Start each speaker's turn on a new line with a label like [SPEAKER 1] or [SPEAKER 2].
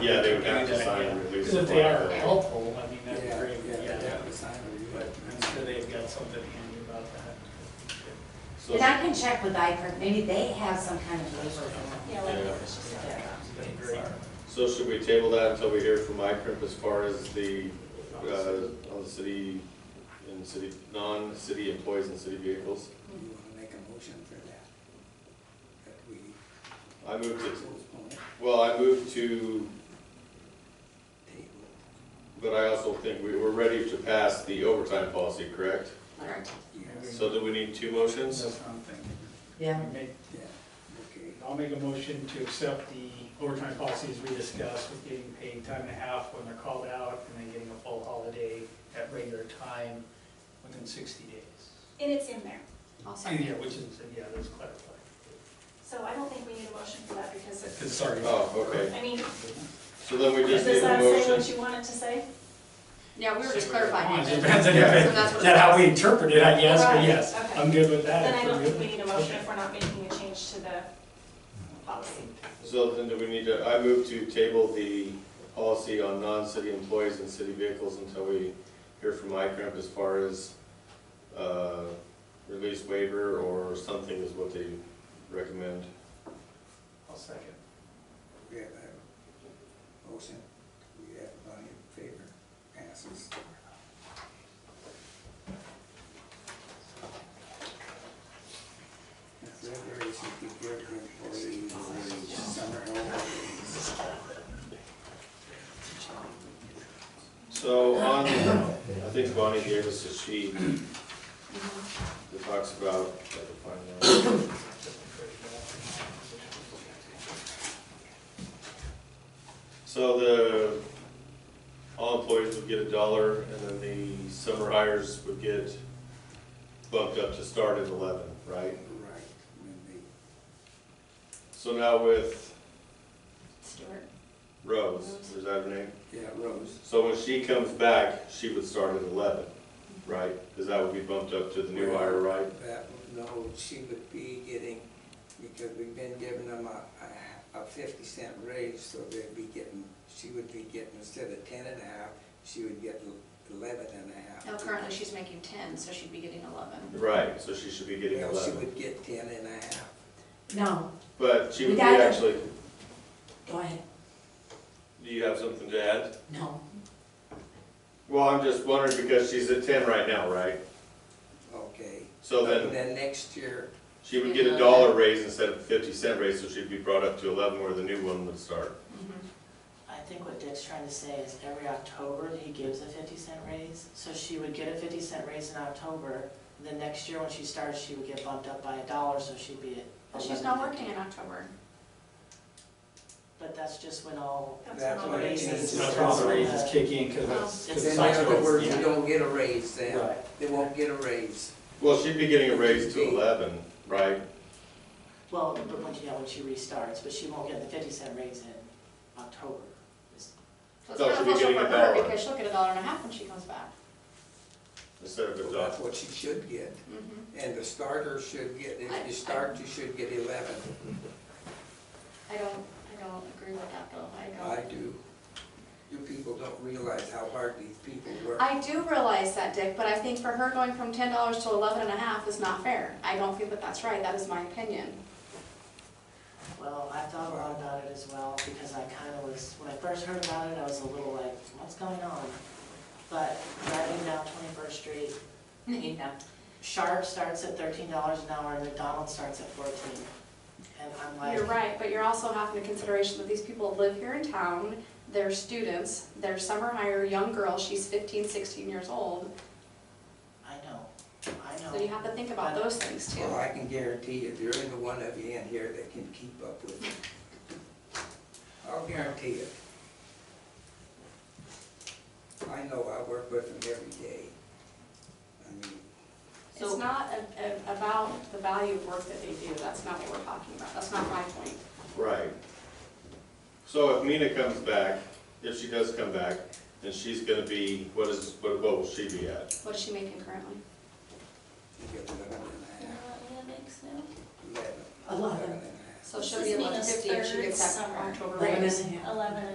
[SPEAKER 1] Yeah, they would have to sign and release.
[SPEAKER 2] Because if they are
[SPEAKER 1] it.
[SPEAKER 2] helpful, I mean, that'd be
[SPEAKER 3] Yeah,
[SPEAKER 2] great,
[SPEAKER 3] yeah,
[SPEAKER 2] yeah.
[SPEAKER 3] that was time review.
[SPEAKER 2] But I'm sure they've got something handy about that.
[SPEAKER 1] So-
[SPEAKER 4] And I can check with IFRS, maybe they have some kind of waiver. for
[SPEAKER 5] Yeah,
[SPEAKER 4] them.
[SPEAKER 5] like
[SPEAKER 1] Yeah.
[SPEAKER 5] what she said.
[SPEAKER 2] That'd be great.
[SPEAKER 1] So should we table that until we hear from ICRIP as far as the, uh, on the city, and city, non-city employees and city vehicles?
[SPEAKER 3] You wanna make a motion for that? That we
[SPEAKER 1] I moved to,
[SPEAKER 3] postpone it,
[SPEAKER 1] well, I moved to,
[SPEAKER 3] table
[SPEAKER 1] but I also think we were ready to pass the overtime policy, correct?
[SPEAKER 4] Correct.
[SPEAKER 3] it. Yes.
[SPEAKER 1] So do we need two motions?
[SPEAKER 2] That's what I'm thinking.
[SPEAKER 4] Yeah.
[SPEAKER 2] Make-
[SPEAKER 3] Yeah, okay.
[SPEAKER 2] I'll make a motion to accept the overtime policies we discussed with getting paid time and a half when they're called out and then getting a full holiday at regular time within sixty days.
[SPEAKER 5] And it's in there.
[SPEAKER 4] I'll
[SPEAKER 2] Yeah,
[SPEAKER 4] second.
[SPEAKER 2] which is, yeah, that's clarified.
[SPEAKER 5] So I don't think we need a motion for that because it,
[SPEAKER 2] Because sorry.
[SPEAKER 1] Oh, okay,
[SPEAKER 5] I mean,
[SPEAKER 1] so then we
[SPEAKER 5] does
[SPEAKER 1] just need
[SPEAKER 5] this
[SPEAKER 1] a
[SPEAKER 5] not say what
[SPEAKER 1] motion.
[SPEAKER 5] you want it to say?
[SPEAKER 4] Yeah, we were just clarifying.
[SPEAKER 2] It depends on
[SPEAKER 1] Yeah.
[SPEAKER 4] So that's
[SPEAKER 2] if,
[SPEAKER 4] what
[SPEAKER 2] is
[SPEAKER 4] it
[SPEAKER 2] that how we
[SPEAKER 4] says.
[SPEAKER 2] interpret it, I guess, but
[SPEAKER 5] Right,
[SPEAKER 2] yes,
[SPEAKER 5] okay.
[SPEAKER 2] I'm good with that. if
[SPEAKER 5] Then I
[SPEAKER 2] we're
[SPEAKER 5] don't think
[SPEAKER 2] good.
[SPEAKER 5] we need a motion
[SPEAKER 2] Okay.
[SPEAKER 5] if we're not making a change to the policy.
[SPEAKER 1] So then do we need to, I move to table the policy on non-city employees and city vehicles until we hear from ICRIP E as far as, uh, release waiver or something is what they recommend.
[SPEAKER 2] I'll second.
[SPEAKER 3] We have a motion, we have money in favor, passes. Consideration to give employees a summer holidays.
[SPEAKER 1] So on, I think Bonnie gave us a sheet that talks about, I can find that. So the, all employees would get a dollar and then the summer hires would get bumped up to start at eleven, right?
[SPEAKER 3] Right, when they,
[SPEAKER 1] So now with
[SPEAKER 4] Stuart.
[SPEAKER 1] Rose, is that her name?
[SPEAKER 3] yeah, Rose,
[SPEAKER 1] So when she comes back, she would start at eleven, right? Because that would be bumped up to the new hire, right?
[SPEAKER 3] that, no, she would be getting, because we've been giving them a, a fifty cent raise, so they'd be getting, she would be getting, instead of ten and a half, she would get eleven and a half.
[SPEAKER 4] No, Oh, currently she's making ten, so she'd be getting eleven.
[SPEAKER 1] Right, so she should be getting
[SPEAKER 3] Well, she
[SPEAKER 1] eleven.
[SPEAKER 3] would get ten and a half.
[SPEAKER 4] No,
[SPEAKER 1] But she
[SPEAKER 4] We
[SPEAKER 1] would be
[SPEAKER 4] got it.
[SPEAKER 1] actually,
[SPEAKER 4] go ahead.
[SPEAKER 1] do you have something to add?
[SPEAKER 4] No.
[SPEAKER 1] Well, I'm just wondering because she's at ten right now, right?
[SPEAKER 3] Okay.
[SPEAKER 1] So then
[SPEAKER 3] Then next year,
[SPEAKER 1] she would get a dollar raise instead of fifty cent raise, so she'd be brought up to eleven where the new one would start.
[SPEAKER 6] I think what Dick's trying to say is every October, he gives a fifty cent raise. So she would get a fifty cent raise in October, then next year when she starts, she would get bumped up by a dollar, so she'd be
[SPEAKER 4] But
[SPEAKER 6] at.
[SPEAKER 4] she's not working in October.
[SPEAKER 6] But that's just when all,
[SPEAKER 3] That's
[SPEAKER 5] all
[SPEAKER 3] what it
[SPEAKER 5] raises.
[SPEAKER 3] means.
[SPEAKER 2] That's when the raises kick in, because that's.
[SPEAKER 6] Well,
[SPEAKER 3] then
[SPEAKER 2] 'cause
[SPEAKER 3] in
[SPEAKER 2] that's
[SPEAKER 3] other
[SPEAKER 2] what-
[SPEAKER 3] words,
[SPEAKER 2] yeah.
[SPEAKER 3] you don't get a raise then.
[SPEAKER 6] Right.
[SPEAKER 3] They won't get a raise.
[SPEAKER 1] Well, she'd be getting a raise to eleven, right?
[SPEAKER 6] well, but when, yeah, when she restarts, but she won't get the fifty cent raise in October.
[SPEAKER 4] So it's
[SPEAKER 1] No,
[SPEAKER 4] not
[SPEAKER 1] Oh, she'll be
[SPEAKER 4] official
[SPEAKER 1] getting
[SPEAKER 4] for
[SPEAKER 1] a
[SPEAKER 4] her
[SPEAKER 1] dollar.
[SPEAKER 4] because she'll get a dollar and a half when she comes back.
[SPEAKER 1] Instead of a
[SPEAKER 3] So
[SPEAKER 1] dollar.
[SPEAKER 3] That's what she should get.
[SPEAKER 4] Mhm.
[SPEAKER 3] And the starter should get, if you start, you should get eleven.
[SPEAKER 4] I don't, I don't agree with that though. I
[SPEAKER 3] I
[SPEAKER 4] don't.
[SPEAKER 3] do. You people don't realize how hard these people work.
[SPEAKER 4] I do realize that, Dick, but I think for her going from ten dollars to eleven and a half is not fair. I don't feel that that's right. That is my opinion.
[SPEAKER 6] Well, I thought a lot about it as well, because I kind of was, when I first heard about it, I was a little like, what's going on? But driving down Twenty-first Street,
[SPEAKER 4] Yeah.
[SPEAKER 6] Sharp starts at thirteen dollars an hour and McDonald's starts at fourteen. And I'm
[SPEAKER 4] You're
[SPEAKER 6] like,
[SPEAKER 4] right, but you're also having the consideration that these people live here in town, they're students, they're summer hire, young girl, she's 15, 16 years old.
[SPEAKER 6] I know, I
[SPEAKER 4] So you
[SPEAKER 6] know.
[SPEAKER 4] have to think about those things too.
[SPEAKER 3] Well, I can guarantee you, there isn't one of you in here that can keep up with it. I'll guarantee it. I know, I work with them every day. I mean,
[SPEAKER 4] It's not a- a- about the value of work that they do, that's not what we're talking about, that's not my point.
[SPEAKER 1] Right. So if Mina comes back, if she does come back, then she's gonna be, what is, what, what will she be at?
[SPEAKER 4] What is she making currently?
[SPEAKER 3] you get eleven
[SPEAKER 5] Uh,
[SPEAKER 3] and a half, eleven.
[SPEAKER 7] Eleven.
[SPEAKER 3] and a half.
[SPEAKER 4] So she'll be eleven
[SPEAKER 5] This is Nina's
[SPEAKER 4] fifty if she
[SPEAKER 5] third
[SPEAKER 4] gets that
[SPEAKER 5] summer.
[SPEAKER 4] October
[SPEAKER 7] Eleven
[SPEAKER 4] raise.
[SPEAKER 7] and a half.
[SPEAKER 5] Eleven and